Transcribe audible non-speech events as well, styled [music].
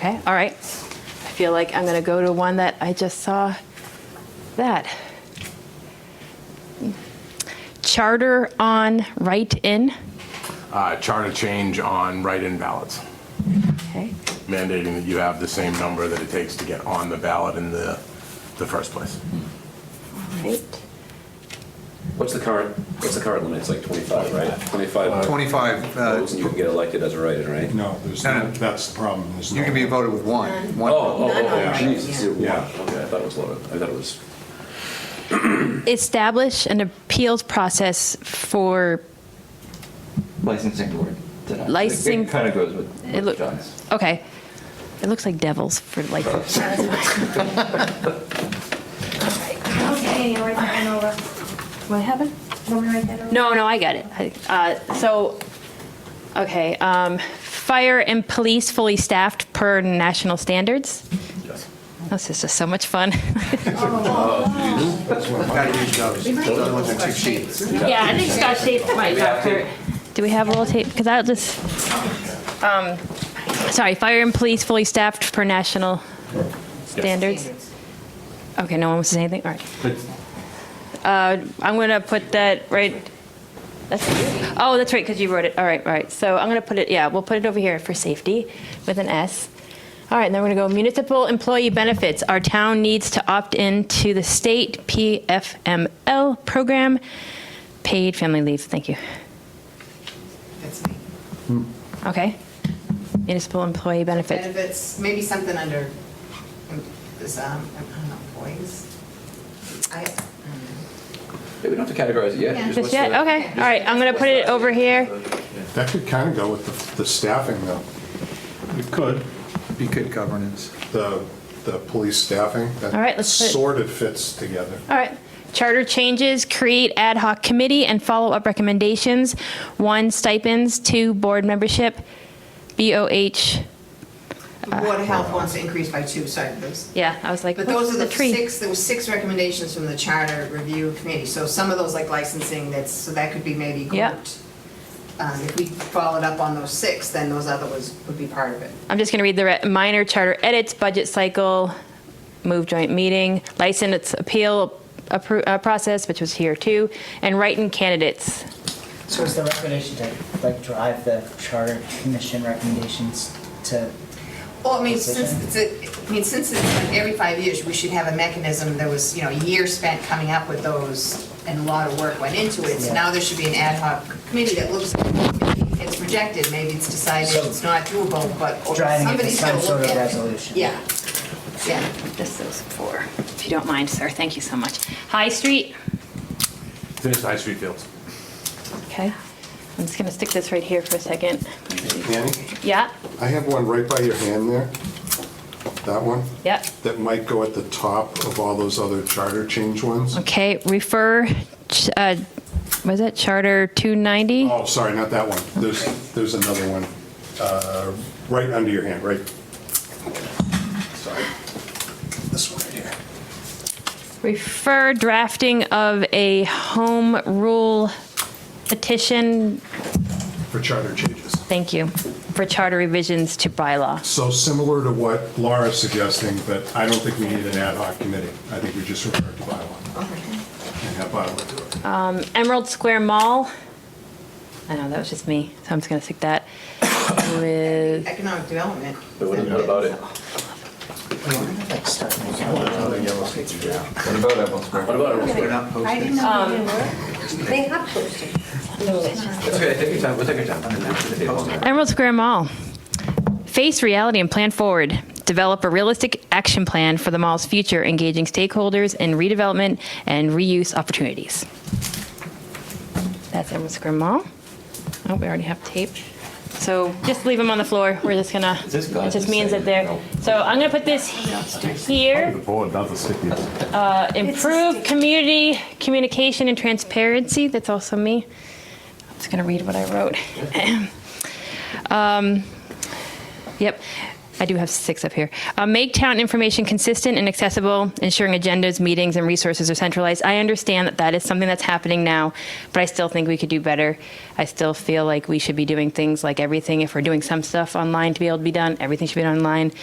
Okay, all right. I feel like I'm going to go to one that I just saw. That. Charter on write-in. Uh, Charter change on write-in ballots, Okay. mandating that you have the same number that it takes to get on the ballot in the, the first place. All right. What's the current, what's the current limit? It's like 25, right? 25 25, uh, votes and you can get elected as a writer, right? No, there's, No, no. no- that's the problem. There's you no- can be voted with one. Oh, One- oh, oh, Yeah. geez, it's zero one. Yeah. Okay, I thought it was lower. I thought it was, Establish an appeals process for, licensing board. did I- Licensing- It kind of goes with It with look- John's. okay. It looks like devils for like. Okay, write that one over. What happened? Want me to write that over? No, no, I got it. I- uh, So, okay, um, fire and police fully staffed per national standards. yes. This is just so much fun. [laughs] Gotta use those. Those are the ones that cheat sheets. Yeah, I think Scott State's my doctor. Do we have a little tape? Because I'll just, um, sorry, fire and police fully staffed per national standards? Okay, no one wants to say anything? All right. Uh, I'm going to put that right, that's, oh, that's right, because you wrote it. All right, all right. So I'm going to put it, yeah, we'll put it over here for safety with an S. All right, and then we're going to go municipal employee benefits. Our town needs to opt in to the state PFML program, paid family leave. Thank you. That's me. Okay. Municipal employee benefits. Benefits, maybe something under, um, this, um, I don't know, employees. I, Maybe we don't have to categorize it yet. Yeah. Just Just what's yet? the- Okay, all right, I'm going to put it over here. That could kind of go with the- the staffing, though. It could, Be good governance. the, the police staffing. that All right, let's put it- Sort of fits together. All right. Charter changes, create ad hoc committee and follow-up recommendations. One, stipends. Two, board membership. BOH. the mm. Board of Health wants to increase by two, sorry, those. Yeah, I was like, But those what's are the the tree? six, there were six recommendations from the Charter Review Committee. So some of those, like licensing, that's, so that could be maybe Yeah. grouped. Um, If we followed up on those six, then those other ones would be part of it. I'm just going to read the re- minor charter edits, budget cycle, move joint meeting, license appeal appro- uh, process, which was here too, and write-in candidates. So is the recommendation to like drive the charter commission recommendations to, Well, I mean, since it's, a- I mean, since it's like every five years, we should have a mechanism that was, you know, a year spent coming up with those, and a lot of work went into it, so Yeah. now there should be an ad hoc committee that looks, maybe it's rejected, maybe it's decided So- it's not doable, but Driving it to somebody's gotta some sort look of at it. resolution. Yeah, yeah. This is for, if you don't mind, sir, thank you so much. High Street. Finish High Street Fields. Okay. I'm just going to stick this right here for a second. Annie, Yeah, I have one right by your hand there. That one, yeah. that might go at the top of all those other charter change ones. Okay, refer, ch- uh, was it Charter 290? Oh, sorry, not that one. There's, there's another one, uh, right under your hand, right? Sorry. This one right here. Refer drafting of a home rule petition, For charter changes. thank you, for charter revisions to bylaw. So similar to what Laura's suggesting, but I don't think we need an ad hoc committee. I think we just refer to bylaw and have bylaw do it. Emerald Square Mall, I know, that was just me, so I'm just going to stick that [coughs] with, Economic development. But what what about it? I wonder if, like start making a What about Apple What Square? about it? I didn't know Um, they were. They have posted. That's okay, take your time, we'll take your time. We'll put the table on there. Emerald Square Mall. Face reality and plan forward. Develop a realistic action plan for the mall's future, engaging stakeholders in redevelopment and reuse opportunities. That's Emerald Square Mall. Oh, we already have tape. So just leave them on the floor. We're just gonna, it this guy's just means that insane. they're, so I'm gonna put this here. Uh, board, not the stickiest. Improve community communication and transparency. That's also me. I'm just going to read what I wrote. um, yep. I do have six up here. Uh, Make town information consistent and accessible, ensuring agendas, meetings, and resources are centralized. I understand that that is something that's happening now, but I still think we could do better. I still feel like we should be doing things like everything, if we're doing some stuff online to be able to be done, everything should be done online.